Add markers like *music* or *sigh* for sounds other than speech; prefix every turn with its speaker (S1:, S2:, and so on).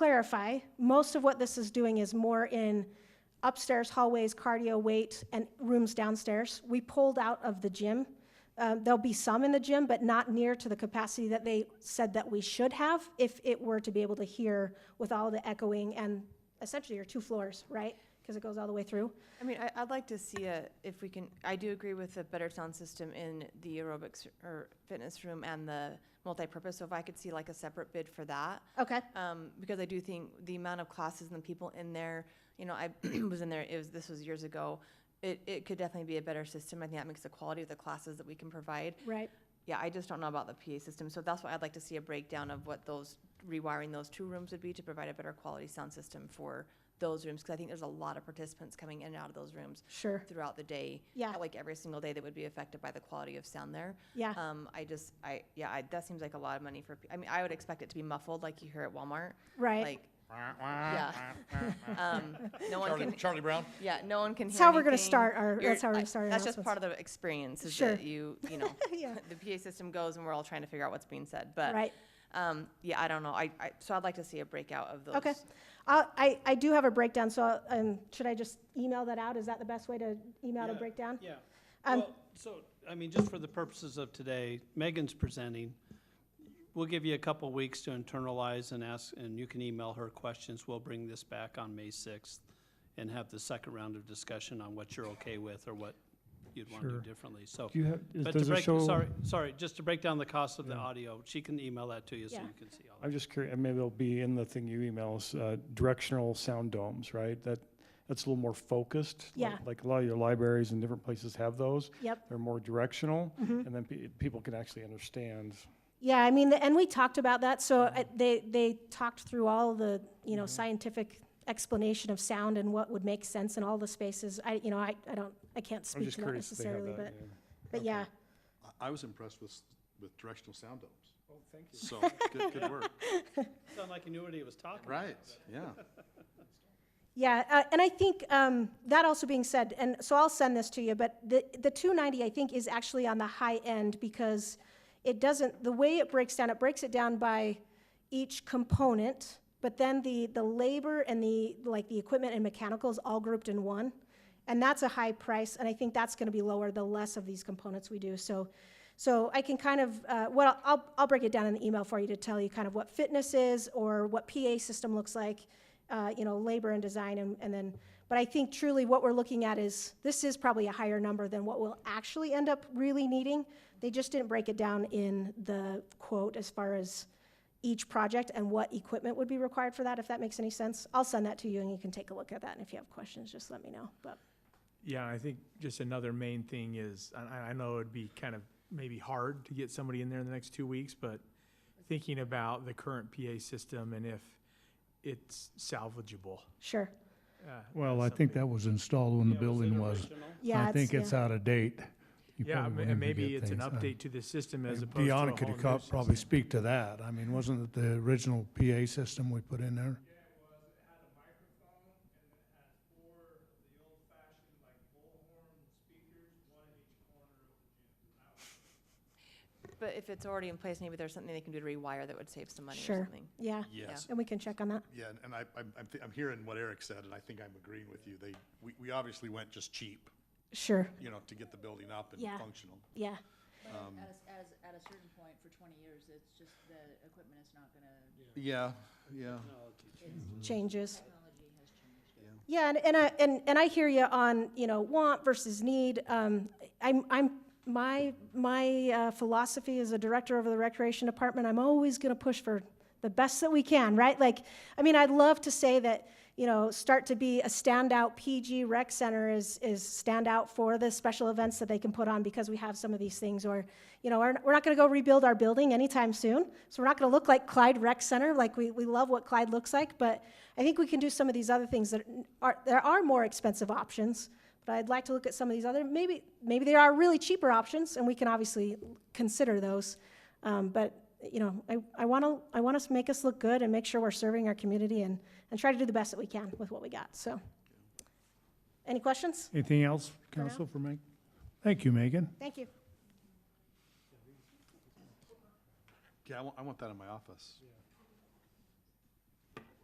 S1: clarify, most of what this is doing is more in upstairs hallways, cardio, weight, and rooms downstairs. We pulled out of the gym. Um, there'll be some in the gym, but not near to the capacity that they said that we should have if it were to be able to hear with all the echoing and essentially your two floors, right? Because it goes all the way through.
S2: I mean, I, I'd like to see a, if we can, I do agree with the better sound system in the aerobics or fitness room and the multipurpose, so if I could see like a separate bid for that.
S1: Okay.
S2: Um, because I do think the amount of classes and the people in there, you know, I *clears throat* was in there, it was, this was years ago. It, it could definitely be a better system. I think that makes the quality of the classes that we can provide.
S1: Right.
S2: Yeah, I just don't know about the PA system, so that's why I'd like to see a breakdown of what those, rewiring those two rooms would be to provide a better quality sound system for those rooms, because I think there's a lot of participants coming in and out of those rooms
S1: Sure.
S2: throughout the day.
S1: Yeah.
S2: Like every single day that would be affected by the quality of sound there.
S1: Yeah.
S2: Um, I just, I, yeah, I, that seems like a lot of money for, pe- I mean, I would expect it to be muffled like you hear at Walmart.
S1: Right.
S2: Like, yeah. Um, no one
S3: Charlie,
S2: can,
S3: Charlie Brown?
S2: yeah, no one can hear
S1: That's how we're gonna
S2: anything.
S1: start our-
S2: You're-
S1: that's how we're gonna
S2: I-
S1: start our
S2: That's just part of the experience is that
S1: Sure. *laughs*
S2: you, you know,
S1: Yeah.
S2: the PA system goes and we're all trying to figure out what's being said, but.
S1: Right.
S2: Um, yeah, I don't know. I, I, so I'd like to see a breakout of those.
S1: Okay. I'll, I, I do have a breakdown, so um, should I just email that out? Is that the best way to email the
S4: Yeah,
S1: breakdown?
S4: Yeah.
S1: Um,
S4: Well, so, I mean, just for the purposes of today, Megan's presenting. We'll give you a couple weeks to internalize and ask, and you can email her questions. We'll bring this back on May 6th and have the second round of discussion on what you're okay with or what you'd want to do
S5: Sure.
S4: differently, so.
S5: Do you have, is-
S4: But to
S5: does it
S4: break,
S5: show?
S4: sorry, sorry, just to break down the cost of the
S5: Yeah.
S4: audio, she can email that to you so
S1: Yeah.
S4: you can see all that.
S5: I'm just curious, maybe it'll be in the thing you email us, uh, directional sound domes, right? That, that's a little more focused. like-
S1: Yeah.
S5: Like a lot of your libraries and different places have those.
S1: Yep.
S5: They're more directional,
S1: Mm-hmm.
S5: and then pe- people can actually understand.
S1: Yeah, I mean, and we talked about that, so uh,
S5: Mm-hmm.
S1: they, they talked through all the, you know, scientific explanation of sound and what would make sense in all the spaces. I, you know, I, I don't, I can't
S5: I'm
S1: speak
S5: just
S1: to that
S5: curious if they have
S1: necessarily,
S5: that.
S1: but,
S5: yeah.
S1: but yeah.
S3: I was impressed with, with directional sound domes. Oh, thank you. So, good, good *laughs* work.
S4: Sound like you knew what he was talking about.
S3: Right, yeah.
S1: Yeah, uh, and I think um, that also being said, and so I'll send this to you, but the, the 290 I think is actually on the high end because it doesn't, the way it breaks down, it breaks it down by each component, but then the, the labor and the, like the equipment and mechanicals all grouped in one. And that's a high price, and I think that's going to be lower the less of these components we do. So, so I can kind of, uh, well, I'll, I'll break it down in the email for you to tell you kind of what fitness is or what PA system looks like, uh, you know, labor and design, and, and then, but I think truly what we're looking at is this is probably a higher number than what we'll actually end up really needing. They just didn't break it down in the quote as far as each project and what equipment would be required for that, if that makes any sense. I'll send that to you and you can take a look at that. And if you have questions, just let me know. But
S6: Yeah, I think just another main thing is, and I, I know it'd be kind of maybe hard to get somebody in there in the next two weeks, but thinking about the current PA system and if it's salvageable.
S1: sure.
S6: uh,
S7: Well, I
S6: that's
S7: think
S6: something.
S7: that was installed when the
S4: Yeah, was it
S7: building was.
S4: original?
S1: Yeah.
S7: I think it's
S1: yeah.
S7: out of date. You
S6: Yeah,
S7: probably
S6: ma- and
S7: won't even
S6: maybe
S7: get
S6: it's an
S7: things. Uh,
S6: update to the system as opposed to a whole
S7: Deanna
S6: new
S7: could
S6: system.
S7: have co- probably speak to that. I mean, wasn't it the original PA system we put in there?
S2: But if it's already in place, maybe there's something they can do to rewire that would save some money or
S1: Sure.
S2: something.
S1: Yeah.
S3: Yes.
S1: And we can check on that.
S3: Yeah, and- and I, I'm, I'm thi- I'm hearing what Eric said, and I think I'm agreeing with you. They, we, we obviously went just cheap,
S1: Sure.
S3: you know, to get the building up and
S1: Yeah.
S3: functional.
S1: Yeah.
S8: But at a, s- at a, s- at a certain point, for twenty years, it's just the equipment is not gonna,
S3: Yeah, yeah.
S1: Changes.
S8: technology has changed.
S1: Yeah, and, and I and, and I hear you on you know want versus need. Um, I'm I'm my my uh, philosophy as a director of the recreation department. I'm always going to push for the best that we can, right? Like, I mean, I'd love to say that you know start to be a standout PG rec center is is stand out for the special events that they can put on because we have some of these things, or you know we're, we're not going to go rebuild our building anytime soon, so we're not going to look like Clyde Rec Center. Like we we love what Clyde looks like, but I think we can do some of these other things that are, there are more expensive options, but I'd like to look at some of these other, maybe, maybe there are really cheaper options, and we can obviously consider those. Um, but, you know, I, I want to, I want us to make us look good and make sure we're serving our community and, and try to do the best that we can with what we got, so. Any questions?
S7: Anything else,
S1: now.
S7: council, for Megan? Thank you, Megan.
S1: Thank you.
S3: Yeah, I want, I want that in my office.